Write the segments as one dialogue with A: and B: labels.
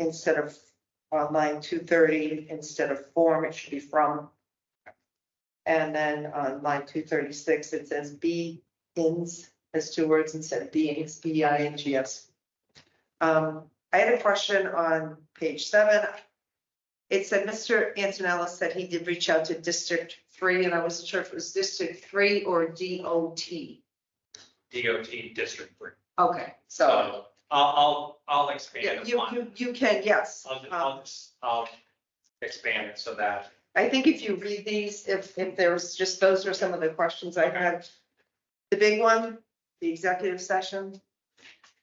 A: instead of on line two thirty, instead of form, it should be from. And then on line two thirty-six, it says be ins, as two words instead of beings, B I N G S. Um, I had a question on page seven. It said Mr. Antonella said he did reach out to District Three, and I wasn't sure if it was District Three or D O T.
B: DOT District Three.
A: Okay, so,
B: So I'll, I'll, I'll expand
A: yeah, you,
B: upon,
A: you, you can, yes.
B: I'll,
A: Um,
B: I'll, I'll expand it so that,
A: I think if you read these, if, if there's just, those are some of the questions I had. The big one, the executive session,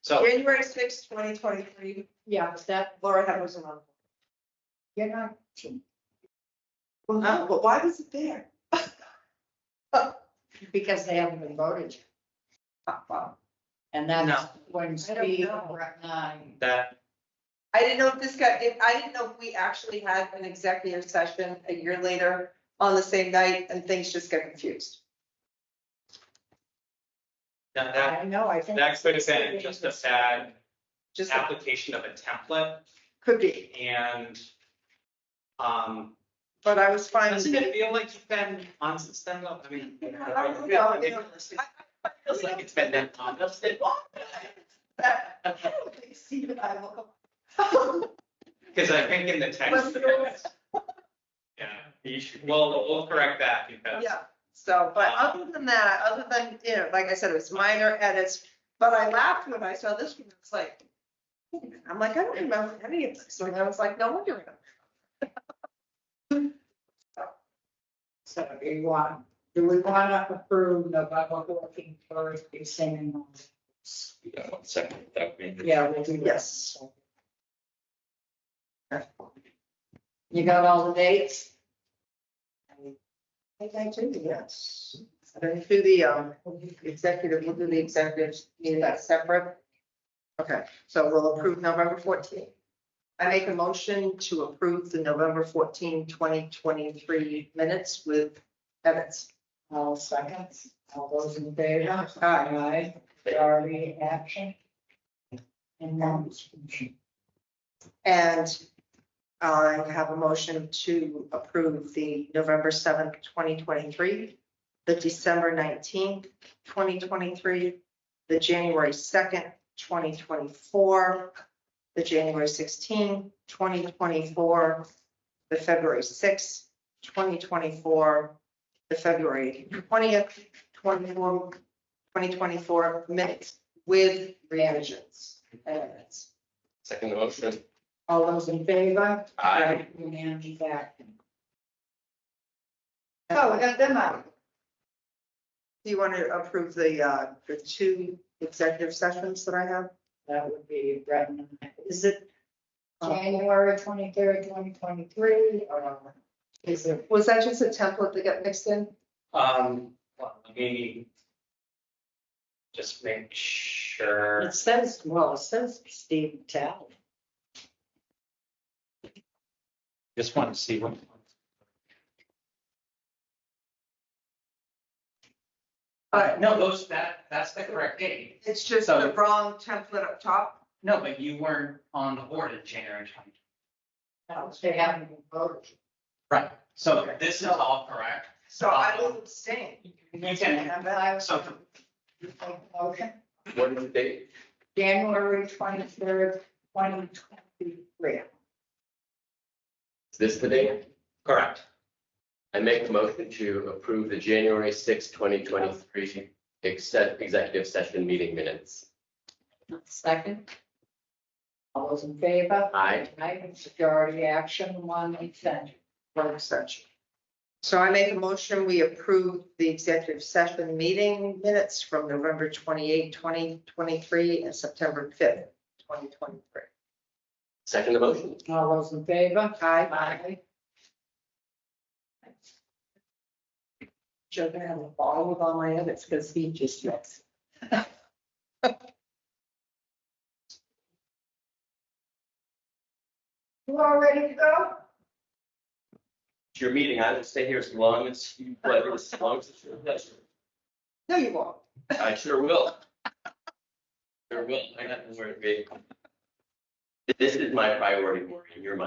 B: so
A: January sixth, twenty twenty-three,
C: Yeah, was that,
A: Laura had was on.
C: you're not.
A: Well, no, Oh, but why was it there?
C: Because they haven't been voted. yet.
A: Uh,
C: And that's when
A: I don't
C: Steve
A: know.
C: nine.
B: that,
A: I didn't know if this got, if, I didn't know if we actually had an executive session a year later on the same night and things just got confused.
B: that, that,
C: I know, I think.
B: that could have been just a sad
A: Just
B: application of a template
A: could be,
B: and, um,
A: but I was fine. with
B: doesn't
A: it.
B: it feel like you've been on since then? I mean.
A: I don't know,
B: It
A: I-
B: feels like it's been that long.
A: Steve and I will-
B: Because I think in the text. Yeah, you should, well, we'll correct that because.
A: Yeah, so, but other than that, other than, you know, like I said, it was minor edits, but I laughed when I saw this one, it's like. I'm like, I don't remember any of this, and I was like, no wonder.
C: So do you want, do we want to approve November fourteenth first, you saying?
B: Yeah, one second, that would be-
C: Yeah, we'll do that.
A: Yes.
C: You got all the dates?
A: I think I do, yes. Then through the, um, executive, we'll do the executives, meeting that separate. Okay, so we'll approve November fourteenth. I make a motion to approve the November 14, 2023 minutes with edits.
C: All seconds, all those in favor? Aye. Aye. Are we action? And then.
A: And I have a motion to approve the November seventh, twenty twenty-three, the December nineteenth, twenty twenty-three, the January second, twenty twenty-four, the January 16, 2024, the February sixth, twenty twenty-four, the February twentieth, 24 2024 minutes with revisions. Edits.
D: Second the motion.
C: All those in favor?
D: Aye.
C: Unanimous action.
A: Oh, we got them out. Do you want to approve the, uh, the two executive sessions that I have?
C: That would be Brendan.
A: Is it,
C: uh, January twenty-third, twenty twenty-three, or is it?
A: was that just a template that got mixed in?
B: Um, well, let me just make sure.
C: It says, well, it says Steve Tell.
B: Just want to see what. Uh, no, those, that, that's the correct date.
A: It's just
B: So-
A: the wrong template up top.
B: No, but you weren't on the board in January twenty.
C: They haven't been voted.
B: Right. So this is all correct.
A: So I will abstain.
B: You can-
A: And I-
B: So
C: Motion,
D: What is the date?
C: January twenty-third, twenty twenty-three.
D: Is this the date?
B: Correct.
D: I make a motion to approve the January sixth, twenty twenty-three exec- executive session meeting minutes.
C: Second. All those in favor?
D: Aye.
C: Aye, majority action, one extension.
A: One extension. So I make a motion, we approve the executive session meeting minutes from November 28, 2023, and September fifth, twenty twenty-three.
D: Second the motion.
C: All those in favor?
A: Aye.
C: Aye.
A: Joe gonna have a ball with all my edits because he just looks.
C: You all ready to go?
D: It's your meeting. I will stay here as long as you, pleasure, as long as it's your pleasure.
A: No, you won't.
D: I sure will. Sure will. I got nowhere to be. This is my priority, Maureen, you're my